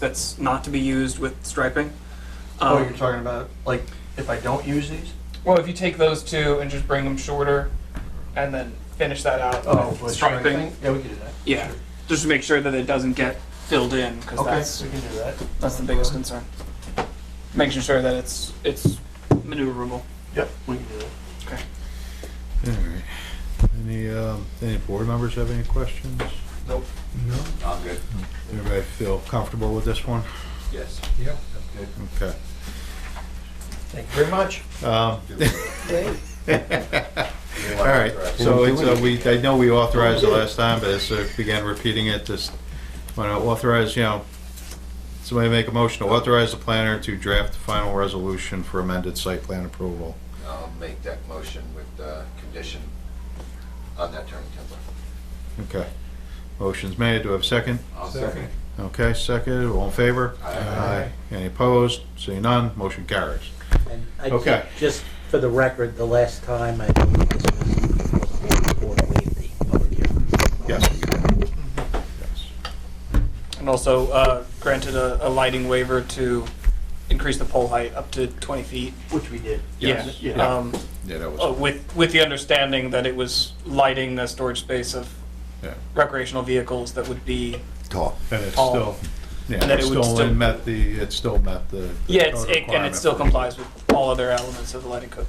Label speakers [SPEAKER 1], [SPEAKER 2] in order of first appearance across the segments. [SPEAKER 1] that's not to be used with striping.
[SPEAKER 2] Oh,
[SPEAKER 1] Um,
[SPEAKER 2] you're talking about, like, if I don't use these?
[SPEAKER 3] Well, if you take those two and just bring them shorter, and then finish that out.
[SPEAKER 2] Oh, with
[SPEAKER 1] striping.
[SPEAKER 2] Yeah, we can do that.
[SPEAKER 1] yeah, just to make sure that it doesn't get filled in because that's
[SPEAKER 2] Okay, we can do that.
[SPEAKER 1] that's the biggest concern. Making sure that it's it's maneuverable.
[SPEAKER 2] Yep, we can do that.
[SPEAKER 4] All right. Any, um, any board members have any questions?
[SPEAKER 2] Nope.
[SPEAKER 5] I'm good.
[SPEAKER 4] Everybody feel comfortable with this one?
[SPEAKER 5] Yes.
[SPEAKER 2] Yep.
[SPEAKER 4] Okay.
[SPEAKER 2] Thank you very much.
[SPEAKER 4] Um, All right, so
[SPEAKER 5] We'll
[SPEAKER 4] it's, uh, we, I know we authorized it last time, but it's, uh, began repeating it, just want to authorize, you know, somebody make a motion to authorize the planner to draft the final resolution for amended site plan approval.
[SPEAKER 5] I'll make that motion with the condition on that turning template.
[SPEAKER 4] Okay. Motion's made, do I have a second?
[SPEAKER 5] I'll second.
[SPEAKER 4] Okay, second, all in favor?
[SPEAKER 5] Aye.
[SPEAKER 4] Any opposed? Seeing none, motion carries.
[SPEAKER 6] And I
[SPEAKER 4] Okay.
[SPEAKER 6] ju- Just for the record, the last time I believe this was, was before we waived the public hearing.
[SPEAKER 4] Yes. Yes.
[SPEAKER 1] And also uh, granted a, a lighting waiver to increase the pole height up to 20 feet.
[SPEAKER 6] Which we did.
[SPEAKER 4] Yes.
[SPEAKER 1] Yeah.
[SPEAKER 4] Yeah.
[SPEAKER 1] Um,
[SPEAKER 4] Yeah, that
[SPEAKER 1] uh,
[SPEAKER 4] was,
[SPEAKER 1] with with the understanding that it was lighting the storage space of
[SPEAKER 4] yeah.
[SPEAKER 1] recreational vehicles that would be
[SPEAKER 5] Tall.
[SPEAKER 4] And it's
[SPEAKER 1] Paul.
[SPEAKER 4] still, yeah,
[SPEAKER 1] And that
[SPEAKER 4] it
[SPEAKER 1] it would
[SPEAKER 4] still
[SPEAKER 1] still-
[SPEAKER 4] met the, it still met the. the
[SPEAKER 1] yeah it's,
[SPEAKER 4] code
[SPEAKER 1] it, and it
[SPEAKER 4] requirement
[SPEAKER 1] still
[SPEAKER 4] for-
[SPEAKER 1] complies with all other elements of the lighting code.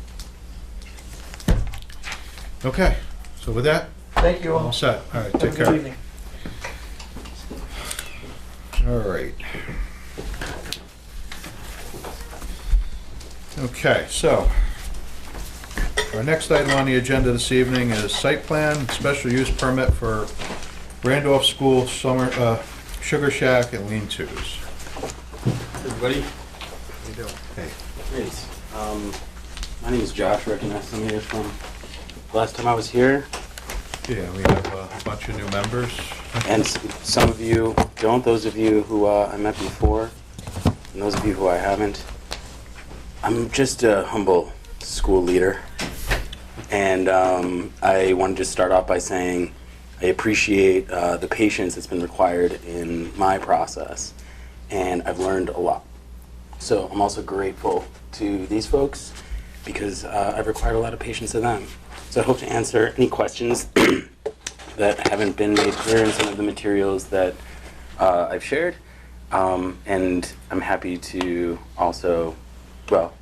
[SPEAKER 4] Okay, so with that,
[SPEAKER 2] Thank you
[SPEAKER 4] all
[SPEAKER 2] all.
[SPEAKER 4] set. All right,
[SPEAKER 2] Have a
[SPEAKER 4] take
[SPEAKER 2] good
[SPEAKER 4] care.
[SPEAKER 2] evening.
[SPEAKER 4] All right. Okay, so our next item on the agenda this evening is site plan, special use permit for Randolph School Summer, uh, Sugar Shack and Lean Tos.
[SPEAKER 7] Everybody,
[SPEAKER 4] Hey,
[SPEAKER 7] great. Um, my name is Josh Recognize I'm here from, last time I was here,
[SPEAKER 4] yeah, we have a bunch of new members.
[SPEAKER 7] and s- some of you don't, those of you who uh, I met before, and those of you who I haven't. I'm just a humble school leader, and um, I wanted to start off by saying I appreciate uh, the patience that's been required in my process, and I've learned a lot. So I'm also grateful to these folks because uh, I've required a lot of patience of them. So I hope to answer any questions that haven't been made clear in some of the materials that uh, I've shared. Um, and I'm happy to also, well,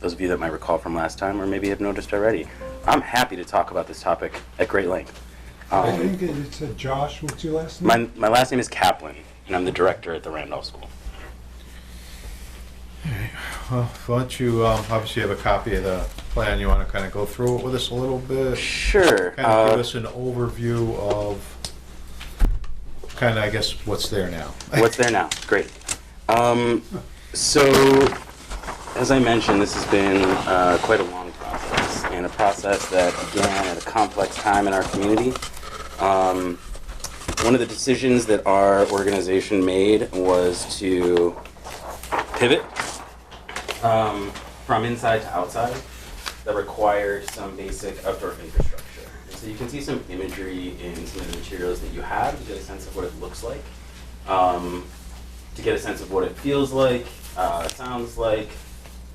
[SPEAKER 7] those of you that might recall from last time or maybe have noticed already, I'm happy to talk about this topic at great length.
[SPEAKER 8] I
[SPEAKER 7] Um,
[SPEAKER 8] think it said uh, Josh, what's your last name?
[SPEAKER 7] my, my last name is Kaplan, and I'm the director at the Randolph School.
[SPEAKER 4] Well, why don't you, um, obviously you have a copy of the plan, you wanna kinda go through it with us a little bit?
[SPEAKER 7] Sure.
[SPEAKER 4] Kind of give
[SPEAKER 7] uh,
[SPEAKER 4] us an overview of, kind of, I guess, what's there now.
[SPEAKER 7] What's there now? Great. Um, so, as I mentioned, this has been uh, quite a long process, and a process that began at a complex time in our community. Um, one of the decisions that our organization made was to pivot um, from inside to outside that required some basic outdoor infrastructure. And so you can see some imagery in some of the materials that you have to get a sense of what it looks like, um, to get a sense of what it feels like, uh, sounds like,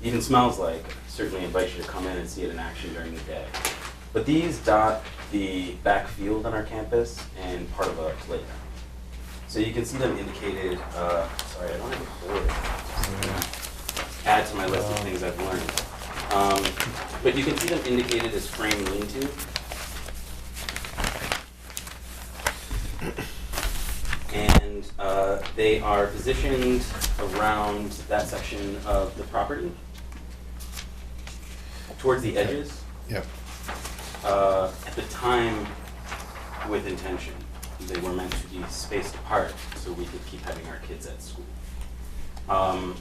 [SPEAKER 7] even smells like. Certainly invite you to come in and see it in action during the day. But these dot the back field on our campus and part of a playground. So you can see them indicated. Uh, sorry, I don't have a board add to my list of things I've learned. Um, but you can see them indicated as frame lean-to. And uh, they are positioned around that section of the property, towards the edges
[SPEAKER 4] Yep.
[SPEAKER 7] uh, at the time with intention. They were meant to be spaced apart so we could keep having our kids at school. Um,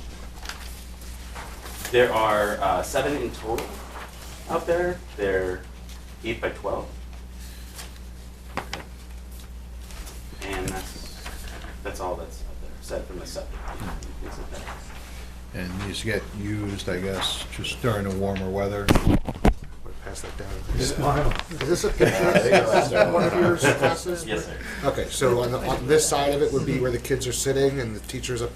[SPEAKER 7] there are uh, seven in total out there. They're eight by twelve. And that's that's all that's out there, aside from the septic. Things like that.
[SPEAKER 4] And these get used, I guess, just during the warmer weather.
[SPEAKER 5] Pass that down.
[SPEAKER 8] Smile.
[SPEAKER 9] Is this a
[SPEAKER 5] Yeah, I
[SPEAKER 9] picture
[SPEAKER 5] think it was
[SPEAKER 9] of one of your classes?
[SPEAKER 7] Yes, sir.
[SPEAKER 9] Okay, so on the, on this side of it would be where the kids are sitting and the teacher's up